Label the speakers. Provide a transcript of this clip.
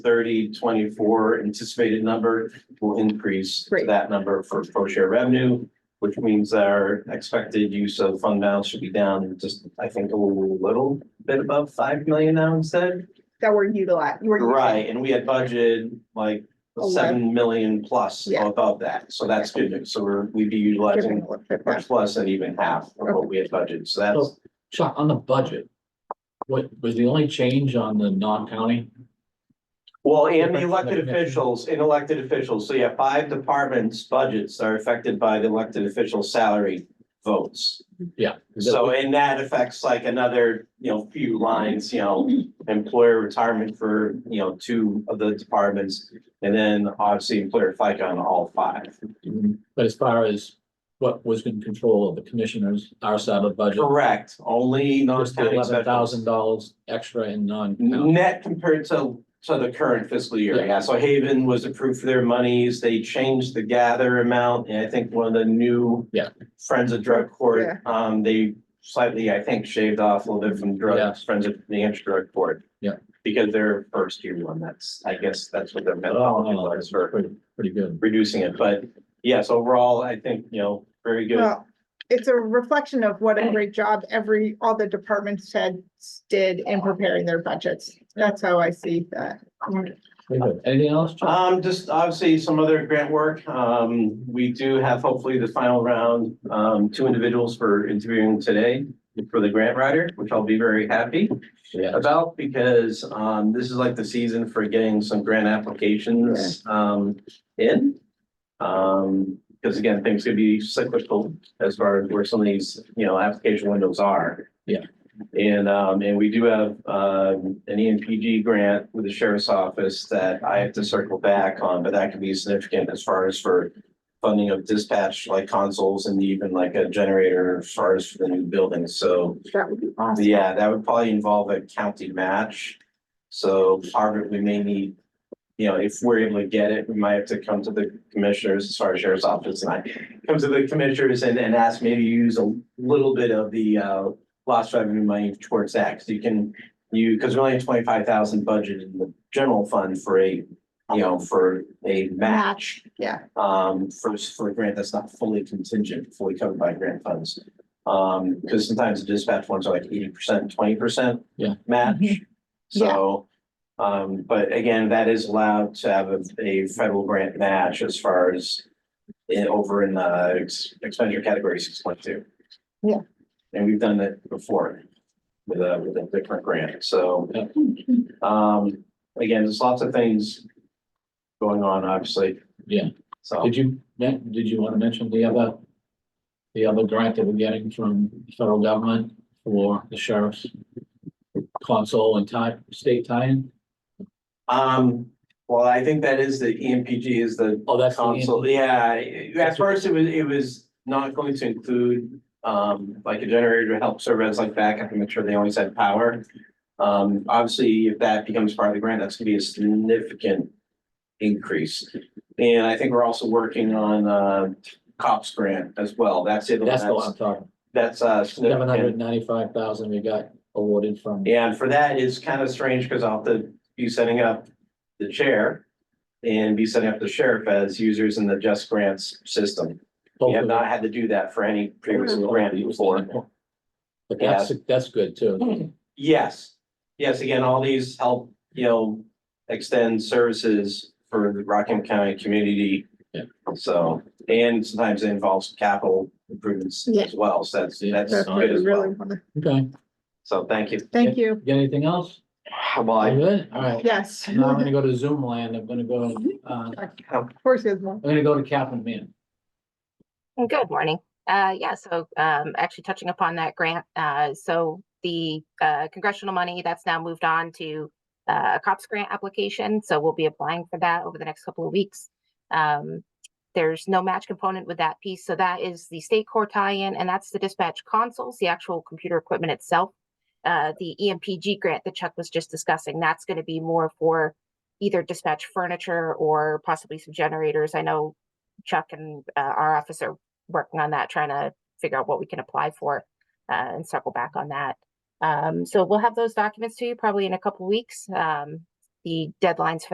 Speaker 1: thirty twenty-four anticipated number will increase to
Speaker 2: Great.
Speaker 1: that number for pro share revenue, which means that our expected use of fund balance should be down just, I think, a little bit above five million now instead.
Speaker 2: that were utilized, you were. using.
Speaker 1: Right, and we had budgeted like seven million plus
Speaker 2: Yeah.
Speaker 1: above that, so that's good news. So we're, we'd be utilizing
Speaker 2: Giving a little bit more.
Speaker 1: much less than even half of what we had budgeted, so that's.
Speaker 3: So, Chuck, on the budget, what was the only change on the non-county?
Speaker 1: Well, and
Speaker 3: Different
Speaker 1: the
Speaker 3: from
Speaker 1: elected
Speaker 3: the commission.
Speaker 1: officials, and elected officials, so you have five departments' budgets are affected by the elected official salary votes.
Speaker 3: Yeah.
Speaker 1: So, and that affects like another, you know, few lines, you know, employer retirement for, you know, two of the departments. And then obviously employer FICA on all five.
Speaker 3: But as far as what was in control of the commissioners, our side of the budget,
Speaker 1: Correct, only
Speaker 3: just
Speaker 1: non-county
Speaker 3: eleven
Speaker 1: officials.
Speaker 3: thousand dollars extra in non-county.
Speaker 1: Net compared to, to the current fiscal year,
Speaker 3: Yeah.
Speaker 1: yeah, so Haven was approved for their monies, they changed the gather amount, and I think one of the new.
Speaker 3: Yeah.
Speaker 1: Friends of Drug
Speaker 2: Yeah.
Speaker 1: Court, um, they slightly, I think, shaved off a little bit from
Speaker 3: Yeah.
Speaker 1: drugs, Friends of the Hampshire Drug Court.
Speaker 3: Yeah.
Speaker 1: Because they're first year one, that's, I guess, that's what their
Speaker 3: Oh,
Speaker 1: methodology
Speaker 3: no,
Speaker 1: was
Speaker 3: that's
Speaker 1: for
Speaker 3: pretty, pretty good.
Speaker 1: reducing it, but yes, overall, I think, you know, very good.
Speaker 2: Well, It's a reflection of what a great job every, all the departments had, did in preparing their budgets. That's how I see that.
Speaker 3: Pretty good. Anything else, Chuck?
Speaker 1: Um, just obviously some other grant work. Um, we do have hopefully the final round, um, two individuals for interviewing today for the grant writer, which I'll be very happy
Speaker 3: Yeah.
Speaker 1: about because, um, this is like the season for getting some grant applications, um, in. Um, because again, things could be cyclical as far as where some of these, you know, application windows are.
Speaker 3: Yeah.
Speaker 1: And, um, and we do have, um, an EMPG grant with the sheriff's office that I have to circle back on, but that could be significant as far as for funding of dispatch like consoles and even like a generator as far as for the new building. So
Speaker 2: That would be awesome.
Speaker 1: yeah, that would probably involve a county match. So part of it, we may need, you know, if we're able to get it, we might have to come to the commissioners, as far as sheriff's office and I. Come to the commissioners and, and ask maybe use a little bit of the, uh, lost revenue money towards that, because you can. You, because we only have twenty-five thousand budget in the general fund for a, you know, for a match
Speaker 2: Yeah,
Speaker 1: um, for, for a grant that's not fully contingent, fully covered by grant funds. Um, because sometimes the dispatch ones are like eighty percent, twenty percent.
Speaker 3: Yeah.
Speaker 1: Match.
Speaker 2: Mhm. Yeah.
Speaker 1: So, um, but again, that is allowed to have a, a federal grant match as far as in, over in the ex- expenditure category six point two.
Speaker 2: Yeah.
Speaker 1: And we've done that before with a, with a different grant, so.
Speaker 3: Yeah.
Speaker 1: Um, again, there's lots of things going on, obviously,
Speaker 3: Yeah.
Speaker 1: so.
Speaker 3: Did you, Matt, did you want to mention the other, the other grant that we're getting from the federal government for the sheriff's console and tie, state tie-in?
Speaker 1: Um, well, I think that is the E EMPG is the
Speaker 3: Oh, that's. the-
Speaker 1: console, yeah, at first it was, it was not going to include. Um, like a generator to help serve as like backup and make sure they always had power. Um, obviously, if that becomes part of the grant, that's gonna be a significant increase. And I think we're also working on uh cops grant as well, that's it.
Speaker 3: That's the one I'm talking,
Speaker 1: That's uh.
Speaker 3: seven
Speaker 1: significant.
Speaker 3: hundred ninety-five thousand we got awarded from.
Speaker 1: And for that, it's kind of strange because I'll have to be setting up the chair and be setting up the sheriff as users in the Just Grants system. We
Speaker 3: both
Speaker 1: have
Speaker 3: of
Speaker 1: not had to do that for any previous
Speaker 2: Mm-hmm.
Speaker 3: them.
Speaker 1: grant before.
Speaker 3: But that's, that's good too.
Speaker 1: Yes, yes, again, all these help, you know, extend services for the Rockham County community.
Speaker 3: Yeah.
Speaker 1: So, and sometimes it involves capital improvements
Speaker 2: Yeah.
Speaker 1: as well, so that's,
Speaker 3: Yeah.
Speaker 1: that's
Speaker 2: that's what
Speaker 1: good
Speaker 2: we
Speaker 1: as
Speaker 2: really
Speaker 1: well.
Speaker 2: want to,
Speaker 3: Okay,
Speaker 1: So thank you.
Speaker 2: thank you.
Speaker 3: got anything else?
Speaker 1: Well,
Speaker 3: You
Speaker 1: I-
Speaker 3: Good, all right.
Speaker 2: Yes.
Speaker 3: Now I'm
Speaker 2: Of
Speaker 3: gonna go to Zoom land. I'm gonna go, uh, I'm
Speaker 2: course, there's one.
Speaker 3: gonna go to Captain Man.
Speaker 4: And Mm, Good morning. Uh, yeah, so, um, actually touching upon that grant, uh, so the, uh, congressional money that's now moved on to uh, a COPS grant application, so we'll be applying for that over the next couple of weeks. Um, there's no match component with that piece, so that is the state core tie-in, and that's the dispatch consoles, the actual computer equipment itself. Uh, the EMPG grant that Chuck was just discussing, that's gonna be more for either dispatch furniture or possibly some generators. I know Chuck and uh, our office are working on that, trying to figure out what we can apply for uh, and circle back on that. Um, so we'll have those documents to you probably in a couple weeks. Um, the deadlines for